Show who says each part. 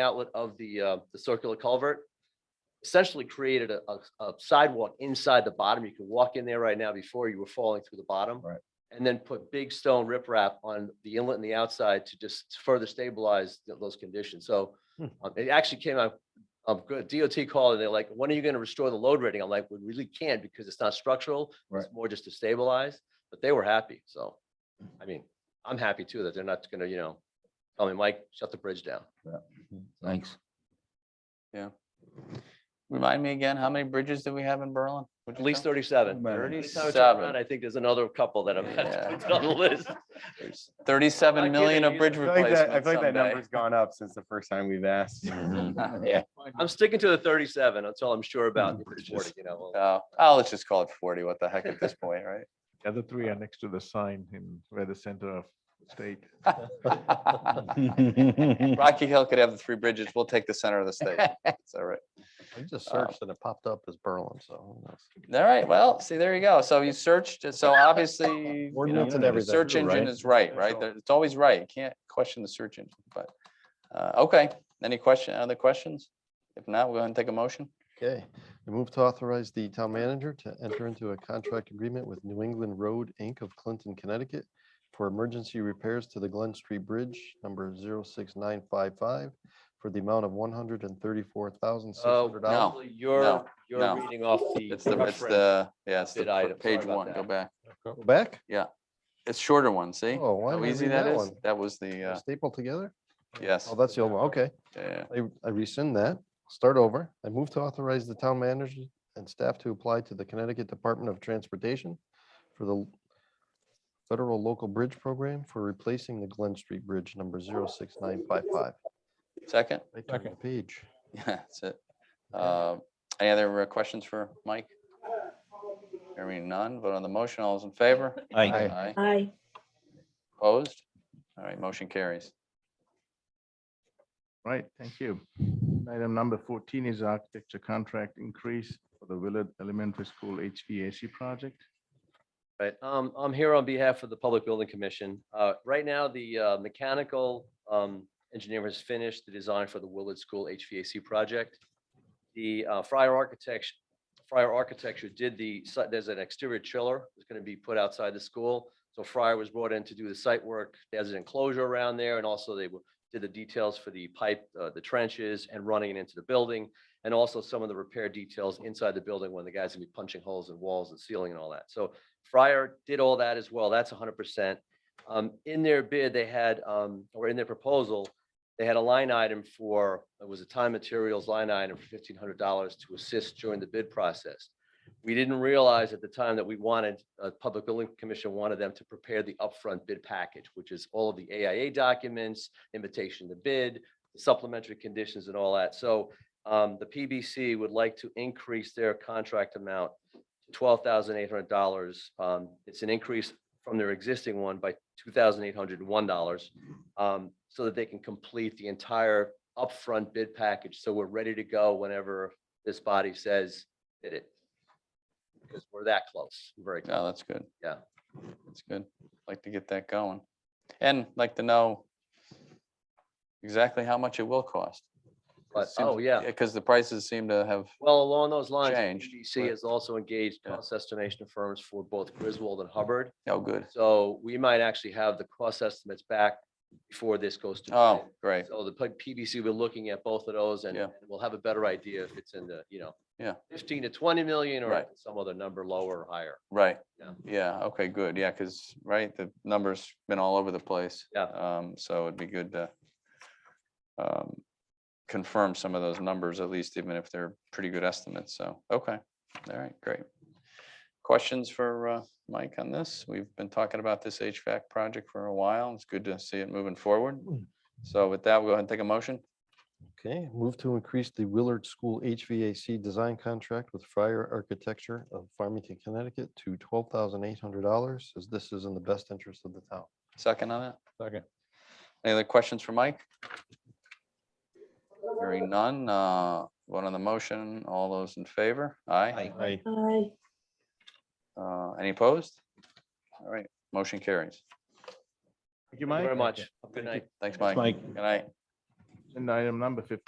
Speaker 1: outlet of the, uh, the circular culvert. Essentially created a, a- a sidewalk inside the bottom. You can walk in there right now before you were falling through the bottom.
Speaker 2: Right.
Speaker 1: And then put big stone riprap on the inlet and the outside to just further stabilize th- those conditions. So
Speaker 2: Hmm.
Speaker 1: um, it actually came out, um, good DOT called and they're like, when are you gonna restore the load rating? I'm like, we really can't because it's not structural. It's
Speaker 2: Right.
Speaker 1: more just to stabilize, but they were happy. So, I mean, I'm happy too that they're not gonna, you know, tell me, Mike, shut the bridge down.
Speaker 2: Thanks.
Speaker 3: Remind me again, how many bridges do we have in Berlin?
Speaker 1: At least thirty-seven.
Speaker 2: Right.
Speaker 1: Every time I turn
Speaker 3: 37.
Speaker 1: around, I think there's another couple that I've
Speaker 3: Yeah.
Speaker 1: had put on the list.
Speaker 3: There's
Speaker 1: Not
Speaker 3: Thirty-seven million
Speaker 1: kidding
Speaker 3: of bridge
Speaker 4: I feel like that, I
Speaker 3: replacements
Speaker 4: feel like that
Speaker 3: someday.
Speaker 4: number's gone up since the first time we've asked.
Speaker 3: Yeah,
Speaker 1: I'm sticking to the thirty-seven. That's all I'm sure about. If it's 40, You know, uh, well,
Speaker 3: so, oh, let's just call it forty, what the heck at this point, right?
Speaker 5: The other three are next to the sign in where the center of state.
Speaker 3: Rocky Hill could have the three bridges, we'll take the center of the state, it's all right.
Speaker 6: I just
Speaker 3: Um,
Speaker 6: searched and it popped up as Berlin, so. who knows?
Speaker 3: All right, well, see, there you go, so you searched, so obviously, you know,
Speaker 6: Ordinance and
Speaker 3: the
Speaker 6: everything,
Speaker 3: search engine
Speaker 6: right?
Speaker 3: is right, right, There- it's always right, you can't question the search engine, but, uh, okay, any question, other questions? If not, we'll go ahead and take a motion.
Speaker 6: Okay, I move to authorize the town manager to enter into a contract agreement with New England Road, Inc. of Clinton, Connecticut for emergency repairs to the Glen Street Bridge, number 06955, for the amount of $134,600.
Speaker 3: no,
Speaker 1: probably You're,
Speaker 3: no,
Speaker 1: you're
Speaker 3: no.
Speaker 1: reading off the.
Speaker 3: It's the, it's
Speaker 1: reference.
Speaker 3: the, yeah, it's the
Speaker 1: Bid item,
Speaker 3: fir-
Speaker 1: sorry
Speaker 3: page
Speaker 1: about
Speaker 3: one, go
Speaker 1: that.
Speaker 3: back.
Speaker 6: Go Back?
Speaker 3: It's shorter one, see?
Speaker 6: Oh, why
Speaker 3: How
Speaker 6: did I
Speaker 3: easy
Speaker 6: read
Speaker 3: that
Speaker 6: that
Speaker 3: is?
Speaker 6: one?
Speaker 3: That was the,
Speaker 6: They're
Speaker 3: uh,
Speaker 6: Stapled together?
Speaker 3: yes,
Speaker 6: Oh, that's the old one, okay.
Speaker 3: yeah,
Speaker 6: I I rescind that, start over. I move to authorize the town manager and staff to apply to the Connecticut Department of Transportation for the Federal Local Bridge Program for replacing the Glen Street Bridge number 06955.
Speaker 3: second,
Speaker 6: I turned the Page.
Speaker 3: yeah, that's it. Uh, Any other uh, questions for Mike? Hearing none, vote on the motion, all those in favor?
Speaker 6: Aye.
Speaker 3: Aye.
Speaker 7: Aye.
Speaker 3: Opposed? All right, motion carries.
Speaker 5: Right, thank you. Item number fourteen is architecture contract increase for the Willard Elementary School HVAC project.
Speaker 1: Right, um, I'm here on behalf of the Public Building Commission. Uh, right now, the, uh, mechanical, um, engineer has finished the design for the Willard School HVAC project. The, uh, Friar Architecture, Friar Architecture did the, site- there's an exterior chiller that's gonna be put outside the school. So Friar was brought in to do the site work. There's an enclosure around there and also they w- did the details for the pipe, uh, the trenches and running it into the building. And also some of the repair details inside the building when the guys gonna be punching holes in walls and ceiling and all that. So Fryer did all that as well. That's hundred percent. Um, in their bid, they had, um, or in their proposal, they had a line item for, it was a time materials line item for fifteen hundred dollars to assist during the bid process. We didn't realize at the time that we wanted, uh, Public Building Commission wanted them to prepare the upfront bid package, which is all of the AIA documents, invitation to bid, supplementary conditions and all that. So, um, the PBC would like to increase their contract amount twelve thousand eight hundred dollars. Um, it's an increase from their existing one by two thousand eight hundred and one dollars. Um, so that they can complete the entire upfront bid package. So we're ready to go whenever this body says did it. Because we're that close, We're very
Speaker 3: No,
Speaker 1: close.
Speaker 3: that's good.
Speaker 1: Yeah.
Speaker 3: That's good. Like to get that going. And like to know exactly how much it will cost. 'Cause it
Speaker 1: But,
Speaker 3: seems-
Speaker 1: oh, yeah.
Speaker 3: Because the prices seem to have,
Speaker 1: Well, along those lines,
Speaker 3: Changed,
Speaker 1: PBC
Speaker 3: right.
Speaker 1: has also engaged
Speaker 3: Yeah.
Speaker 1: cost estimation firms for both Griswold and Hubbard.
Speaker 3: oh, good.
Speaker 1: So we might actually have the cost estimates back before this goes to. bid.
Speaker 3: Oh, great.
Speaker 1: So the P- PBC, we're looking at both of those and
Speaker 3: Yeah.
Speaker 1: and we'll have a better idea if it's in the, you know,
Speaker 3: Yeah.
Speaker 1: fifteen to twenty million or
Speaker 3: Right.
Speaker 1: some other number lower or higher.
Speaker 3: Right,
Speaker 1: Yeah.
Speaker 3: yeah, okay, good, yeah, because, right, the number's been all over the place.
Speaker 1: Yeah.
Speaker 3: Um, so it'd be good to um, confirm some of those numbers, at least even if they're pretty good estimates, so, okay, all right, great. Questions for uh, Mike on this? We've been talking about this HVAC project for a while, it's good to see it moving forward.
Speaker 1: Hmm.
Speaker 3: So with that, we'll go ahead and take a motion,
Speaker 6: Okay, move to increase the Willard School HVAC design contract with Fryer Architecture of Farmington, Connecticut to $12,800 as this is in the best interest of the town.
Speaker 3: second on that?
Speaker 4: Second.
Speaker 3: Any other questions for Mike? Hearing none, uh, one on the motion, all those in favor, aye?
Speaker 6: Aye.
Speaker 7: Aye.
Speaker 3: Uh, any opposed? All right, motion carries.
Speaker 4: Thank you,
Speaker 1: Thank you
Speaker 4: Mike.
Speaker 1: very much. Good night.
Speaker 3: Thanks, Mike. Good night.
Speaker 5: Agenda item number fifteen